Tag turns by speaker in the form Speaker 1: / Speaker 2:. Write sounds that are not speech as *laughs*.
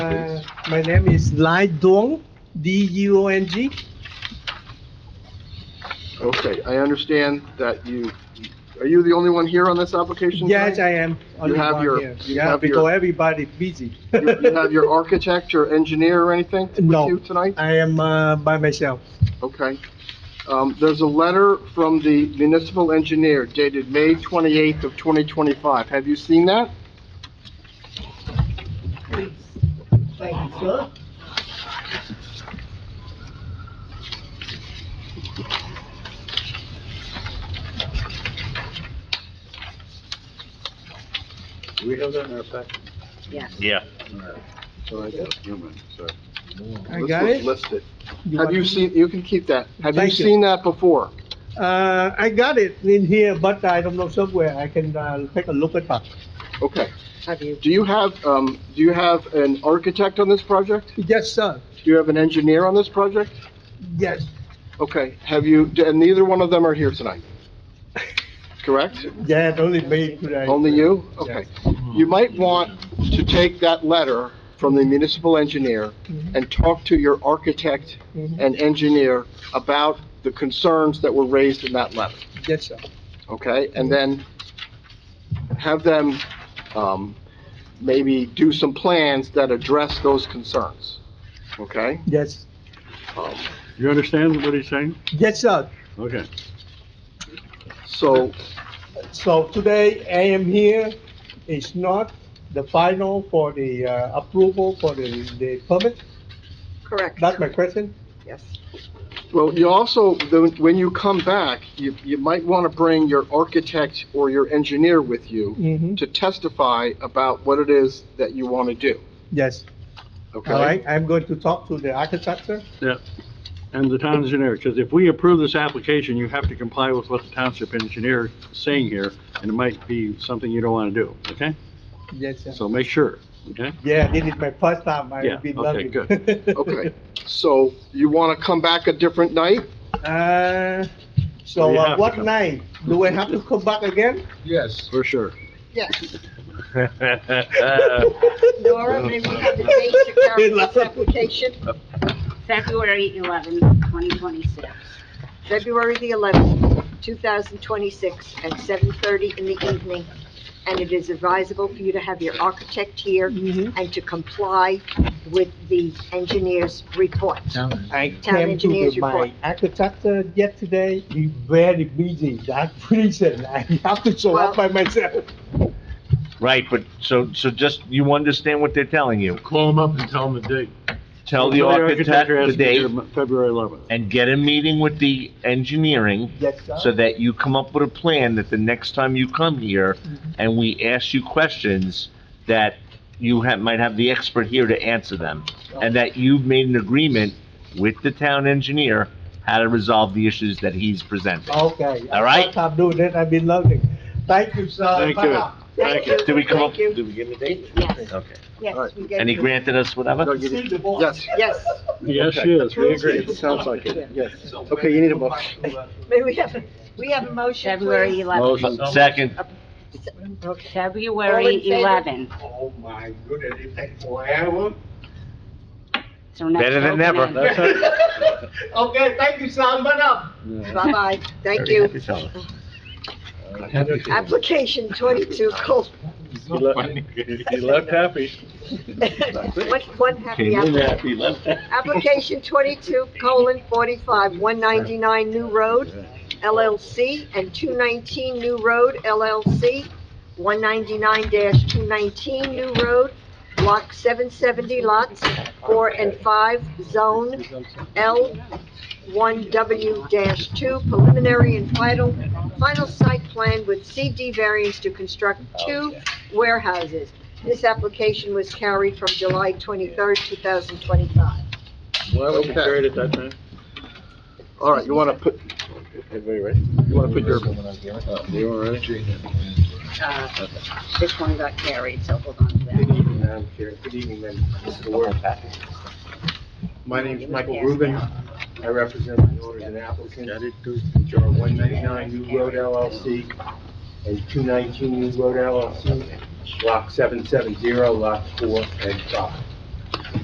Speaker 1: Uh, my name is Lai Dong, D-U-O-N-G.
Speaker 2: Okay, I understand that you, are you the only one here on this application?
Speaker 1: Yes,
Speaker 2: tonight?
Speaker 1: I am. only
Speaker 2: have
Speaker 1: one
Speaker 2: your-
Speaker 1: here.
Speaker 2: you
Speaker 1: Yeah,
Speaker 2: have your-
Speaker 1: because everybody busy.
Speaker 2: You you
Speaker 1: *laughs*
Speaker 2: have your architect or engineer or anything
Speaker 1: No.
Speaker 2: with you tonight?
Speaker 1: I am uh, by myself.
Speaker 2: Okay. Um, there's a letter from the municipal engineer dated May 28th of 2025. Have you seen that?
Speaker 3: We have that in our packet.
Speaker 4: Yeah.
Speaker 3: So I got human, so.
Speaker 1: I
Speaker 2: Let's
Speaker 1: got
Speaker 2: look-
Speaker 1: it.
Speaker 2: List it. Have
Speaker 1: want
Speaker 2: you
Speaker 1: me-
Speaker 2: seen, you can keep that. Have you
Speaker 1: Thank you.
Speaker 2: seen that before?
Speaker 1: Uh, I got it in here, but I don't know somewhere. I can uh, take a look at that.
Speaker 2: Okay.
Speaker 5: Have you?
Speaker 2: Do you have, um, do you have an architect on this project?
Speaker 1: Yes, sir.
Speaker 2: Do you have an engineer on this project?
Speaker 1: Yes,
Speaker 2: Okay, have you, and neither one of them are here tonight? Correct?
Speaker 1: yeah, only me today.
Speaker 2: Only you? Okay. You might want to take that letter from the municipal engineer and talk to your architect
Speaker 1: Mhm.
Speaker 2: and engineer about the concerns that were raised in that letter,
Speaker 1: Yes, sir.
Speaker 2: okay? And then have them, um, maybe do some plans that address those concerns, okay?
Speaker 1: Yes,
Speaker 2: Um,
Speaker 3: You understand what he's saying?
Speaker 1: yes, sir.
Speaker 3: Okay.
Speaker 2: So,
Speaker 1: So today I am here, it's not the final for the uh, approval for the, the permit,
Speaker 5: Correct.
Speaker 1: that's my question.
Speaker 5: Yes.
Speaker 2: Well, you also, the- when you come back, you, you might want to bring your architect or your engineer with you
Speaker 1: Mm-hmm.
Speaker 2: to testify about what it is that you want to do,
Speaker 1: Yes,
Speaker 2: okay?
Speaker 1: all right, I'm going to talk to the architecture.
Speaker 3: Yeah. And the town engineer, because if we approve this application, you have to comply with what the township engineer is saying here, and it might be something you don't want to do, okay?
Speaker 1: Yes, sir.
Speaker 3: So make sure, okay?
Speaker 1: Yeah, this is my first time,
Speaker 3: Yeah,
Speaker 1: I've been
Speaker 3: okay,
Speaker 1: loving.
Speaker 3: good.
Speaker 2: Okay, so you want to come back a different night?
Speaker 1: *laughs* Uh, so
Speaker 3: You
Speaker 1: uh,
Speaker 3: have to
Speaker 1: what
Speaker 3: come.
Speaker 1: night, do I have to come back again?
Speaker 2: Yes.
Speaker 3: For sure.
Speaker 5: Yes.
Speaker 3: Uh,
Speaker 4: February
Speaker 5: Nora, may we have the date to
Speaker 1: *laughs*
Speaker 5: carry this *laughs* application?
Speaker 4: eleventh, twenty twenty-six.
Speaker 5: February the 11th, 2026, at 7:30 in the evening. And it is advisable for you to have your architect here
Speaker 1: Mhm.
Speaker 5: and to comply with the engineer's report.
Speaker 1: I
Speaker 5: Town
Speaker 1: came to
Speaker 5: engineer's
Speaker 1: the- my
Speaker 5: report.
Speaker 1: architecture yesterday, he's very busy, that's *laughs* reason I have to show up by
Speaker 5: Well-
Speaker 1: myself.
Speaker 4: Right, but, so, so just, you understand what they're telling you?
Speaker 6: *laughs* Call them up and tell them the date.
Speaker 4: Tell the
Speaker 3: Your
Speaker 4: architect
Speaker 3: has to
Speaker 4: the
Speaker 3: be here
Speaker 4: date
Speaker 3: February 11th.
Speaker 4: and get a meeting with the engineering
Speaker 1: Yes, sir.
Speaker 4: so that you come up with a plan that the next time you come here and we ask you questions, that you have, might have the expert here to answer them. And that you've made an agreement with the town engineer how to resolve the issues that he's presenting.
Speaker 1: Okay.
Speaker 4: All right.
Speaker 1: What I'm doing it, I've been loving. Thank you, sir.
Speaker 3: Thank you.
Speaker 1: Bye-bye.
Speaker 5: Thank you.
Speaker 4: Did we come up,
Speaker 5: Thank you.
Speaker 4: did we give him a date?
Speaker 5: Yes,
Speaker 4: Okay.
Speaker 5: yes. we gave
Speaker 4: And he
Speaker 5: you-
Speaker 4: granted us whatever?
Speaker 1: See the boss.
Speaker 2: Yes,
Speaker 5: Yes.
Speaker 3: Yes, yes, we agree.
Speaker 2: it sounds like it, yes. Okay, you need a motion.
Speaker 5: May we have, we have a motion,
Speaker 7: February
Speaker 5: please?
Speaker 7: 11th.
Speaker 4: Second,
Speaker 5: All in
Speaker 7: February
Speaker 5: favor?
Speaker 7: 11th.
Speaker 1: Oh, my goodness, it takes forever.
Speaker 7: So next
Speaker 4: Better than
Speaker 7: opening.
Speaker 4: never.
Speaker 3: That's it.
Speaker 1: *laughs* Okay, thank you, sir. Bye now.
Speaker 5: Bye-bye. Thank
Speaker 4: Very happy
Speaker 5: you.
Speaker 4: fellow.
Speaker 5: Application 22, Col-
Speaker 3: He le- he left happy.
Speaker 5: One, one happy
Speaker 4: Came in
Speaker 5: application.
Speaker 4: happy, left happy.
Speaker 5: *laughs* Application 22 colon 45, 199 New Road LLC and 219 New Road LLC, 199-219 New Road, Block 770, Lots 4 and 5, Zone L1W-2, preliminary and final, final site plan with CD variance to construct two warehouses. This application was carried from July 23rd, 2025.
Speaker 3: Why
Speaker 2: was it carried
Speaker 3: at that time?
Speaker 2: All right, you want to put,
Speaker 3: Everybody ready?
Speaker 2: you want to put your,
Speaker 3: You all ready?
Speaker 7: Uh, This one got carried, so hold on to that.
Speaker 8: Good evening, members of the board. My name is Michael Rubin. I represent the owners and applicants, which are 199 New Road LLC and 219 New Road LLC, Block 770, Lot 4 and 5.